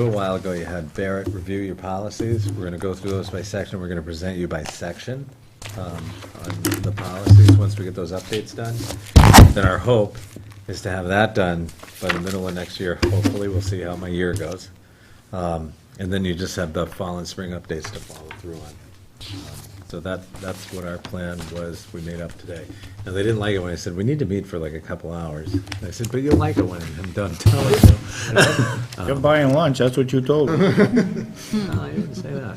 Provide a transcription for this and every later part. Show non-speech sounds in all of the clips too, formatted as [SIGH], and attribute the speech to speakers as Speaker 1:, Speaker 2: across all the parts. Speaker 1: A little while ago, you had Barrett review your policies. We're going to go through those by section. We're going to present you by section um, on the policies, once we get those updates done. Then our hope is to have that done by the middle of next year. Hopefully, we'll see how my year goes. Um, And then you just have the fall and spring updates to follow through on. Um, So that, that's what our plan was, we made up today. Now, they didn't like it when I said, we need to meet for like a couple hours. And I said, but you'll like it when I'm done telling you.
Speaker 2: You're buying lunch, that's what you told me.
Speaker 1: No, I didn't say that.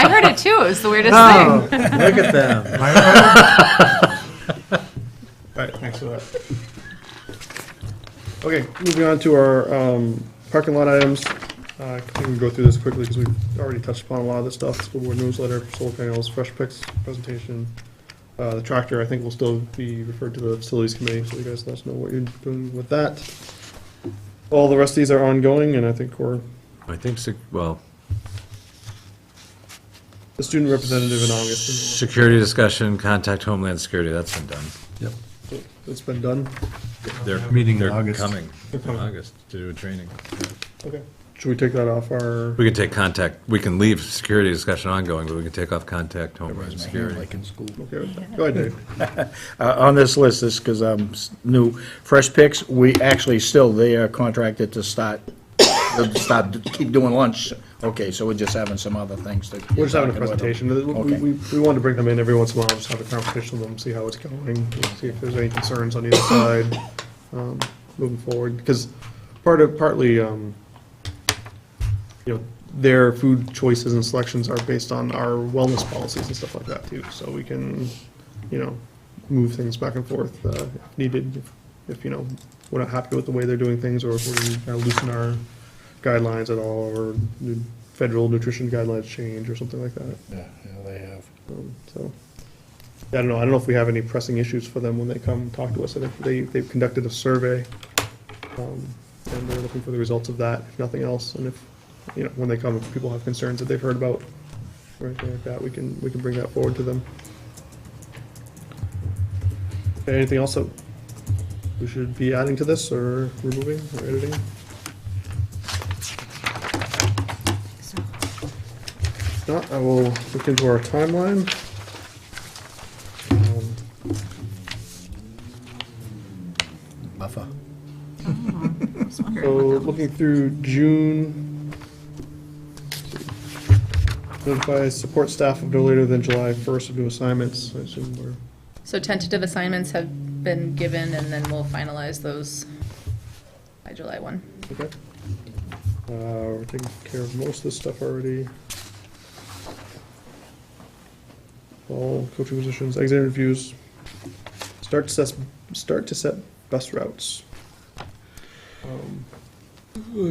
Speaker 3: I heard it too. It was the weirdest thing.
Speaker 1: Look at them.
Speaker 4: Right, thanks for that. Okay, moving on to our um, parking lot items. Uh, I think we can go through this quickly because we've already touched upon a lot of this stuff. School board newsletter, solar panels, fresh picks, presentation. Uh, The tractor, I think, will still be referred to the facilities committee, so you guys let us know what you're doing with that. All the rest of these are ongoing, and I think we're,
Speaker 1: I think, sec- well,
Speaker 4: the student representative in August,
Speaker 1: security discussion, contact Homeland Security, that's been done.
Speaker 4: it's been done.
Speaker 1: They're,
Speaker 5: Meeting in
Speaker 1: they're
Speaker 5: August. [LAUGHS]
Speaker 1: coming in
Speaker 4: Okay.
Speaker 1: August to do a training.
Speaker 4: Okay, should we take that off our?
Speaker 1: We can take contact, we can leave security discussion ongoing, but we can take off contact Homeland Security.
Speaker 5: Like in school.
Speaker 4: Okay, go ahead, Dave.
Speaker 2: Uh, On this list, this, because I'm s- new, Fresh Picks, we actually still, they are contracted to start, to start, to keep doing lunch. Okay, so we're just having some other things to.
Speaker 4: We're just having a
Speaker 2: talking about them.
Speaker 4: presentation. We,
Speaker 2: Okay.
Speaker 4: we, we wanted to bring them in every once in a while, just have a conversation with them, see how it's going, see if there's any concerns on either side, um, moving forward. Because part of, partly, um, you know, their food choices and selections are based on our wellness policies and stuff like that too. So we can, you know, move things back and forth, uh, if needed, if- if, you know, we're not happy with the way they're doing things or if we're gonna loosen our guidelines at all or new federal nutrition guidelines change or something like that.
Speaker 5: Yeah, yeah, they have.
Speaker 4: Um, So, I don't know, I don't know if we have any pressing issues for them when they come talk to us. I think they, they've conducted a survey, um, and they're looking for the results of that, if nothing else. And if, you know, when they come, if people have concerns that they've heard about or anything like that, we can, we can bring that forward to them. Anything else that we should be adding to this, or removing, or editing? If not, I will look into our timeline. Um,
Speaker 5: Buffer.
Speaker 3: I was wondering
Speaker 4: So,
Speaker 3: what that was.
Speaker 4: Oh, looking through June, notify support staff of no later than July 1st of new assignments, I assume we're,
Speaker 3: So tentative assignments have been given, and then we'll finalize those by July one.
Speaker 4: okay. Uh, We're taking care of most of this stuff already. All coaching positions, exit interviews, start to set, start to set bus routes. Um, oh,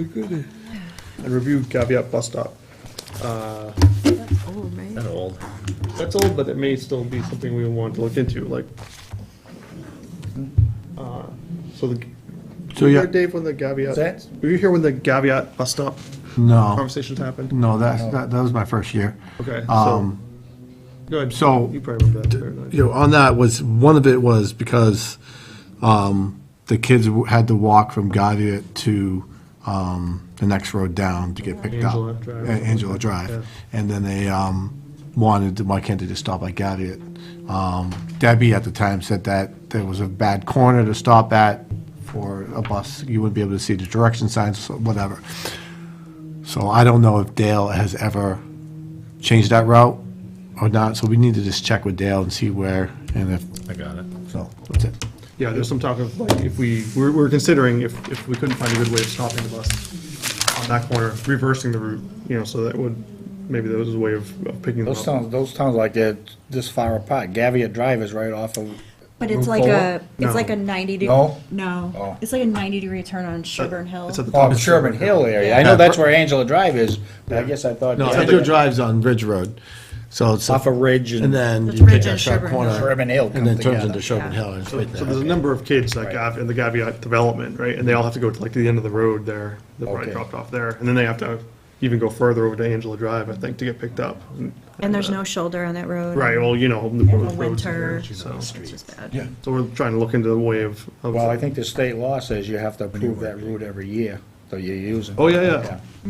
Speaker 4: And review caveat bus stop. Uh,
Speaker 3: Oh, right.
Speaker 1: That old.
Speaker 4: That's old, but it may still be something we want to look into, like. uh, So the,
Speaker 5: So,
Speaker 4: were you
Speaker 5: Oh, yeah.
Speaker 4: here, Dave, when the Gaviat?
Speaker 2: that?
Speaker 4: Were you here when the Gaviat bus stop
Speaker 5: No,
Speaker 4: conversations happened?
Speaker 5: no, that's, that, that was my first year.
Speaker 4: Okay, so,
Speaker 5: Um,
Speaker 4: go ahead,
Speaker 5: so-
Speaker 4: you probably remember that better than I do.
Speaker 5: you know, on that was, one of it was because, um, the kids w- had to walk from Gavia to, um, the next road down to get picked up.
Speaker 4: Angela Drive.
Speaker 5: Uh, Angela
Speaker 4: Yeah.
Speaker 5: Drive. And then they, um, wanted, to- why can't they just stop at Gavia? Um, Debbie at the time said that there was a bad corner to stop at for a bus. You wouldn't be able to see the direction signs, or whatever. So I don't know if Dale has ever changed that route or not, so we need to just check with Dale and see where, and if,
Speaker 1: I got it.
Speaker 5: so, that's it.
Speaker 4: Yeah, there's some talk of, like, if we, we're, we're considering if, if we couldn't find a good way of stopping the bus on that corner, reversing the route, you know, so that would, maybe that was a way of of picking them
Speaker 2: Those
Speaker 4: up.
Speaker 2: towns, those towns like they're this far apart. Gaviot Drive is right off of,
Speaker 6: But it's
Speaker 2: Move
Speaker 6: like a,
Speaker 2: forward?
Speaker 4: No.
Speaker 6: it's like a ninety degree.
Speaker 2: No? Oh.
Speaker 6: No, it's like a ninety degree turn on Sherburne Hill.
Speaker 4: It's at the top
Speaker 2: off
Speaker 4: of
Speaker 2: Sherman
Speaker 4: Sherman
Speaker 2: Hill area. I
Speaker 5: Yeah.
Speaker 2: know that's where Angela Drive is, but I guess I thought.
Speaker 5: No,
Speaker 2: Yeah.
Speaker 5: Angel Drive's on Ridge Road, so it's,
Speaker 2: Off of Ridge
Speaker 5: and
Speaker 2: and
Speaker 5: then
Speaker 6: That's
Speaker 5: you take
Speaker 6: Ridge
Speaker 5: that
Speaker 6: and
Speaker 5: sharp
Speaker 6: Sherburne Hill.
Speaker 5: corner,
Speaker 2: Sherman Hill
Speaker 5: and
Speaker 2: come
Speaker 5: then turns
Speaker 2: together.
Speaker 5: into Sherman
Speaker 6: Yeah.
Speaker 5: Hill, and it's
Speaker 4: So
Speaker 5: right
Speaker 4: so there's a
Speaker 5: there.
Speaker 4: number of kids that Gav, in the Gaviot development, right, and they all have to go to like to the end of the road there, they're probably
Speaker 2: Okay.
Speaker 4: dropped off there, and then they have to even go further over to Angela Drive, I think, to get picked up.
Speaker 6: And there's no shoulder on that road.
Speaker 4: Right, well, you know, the
Speaker 6: In the
Speaker 4: roads
Speaker 6: winter,
Speaker 4: are there,
Speaker 6: it's
Speaker 4: so,
Speaker 6: just bad.
Speaker 5: Yeah.
Speaker 4: so we're trying to look into the way of. of-
Speaker 2: Well, I think the state law says you have to approve that route every year.
Speaker 4: So you're using.
Speaker 2: Oh, yeah, yeah.
Speaker 4: Okay.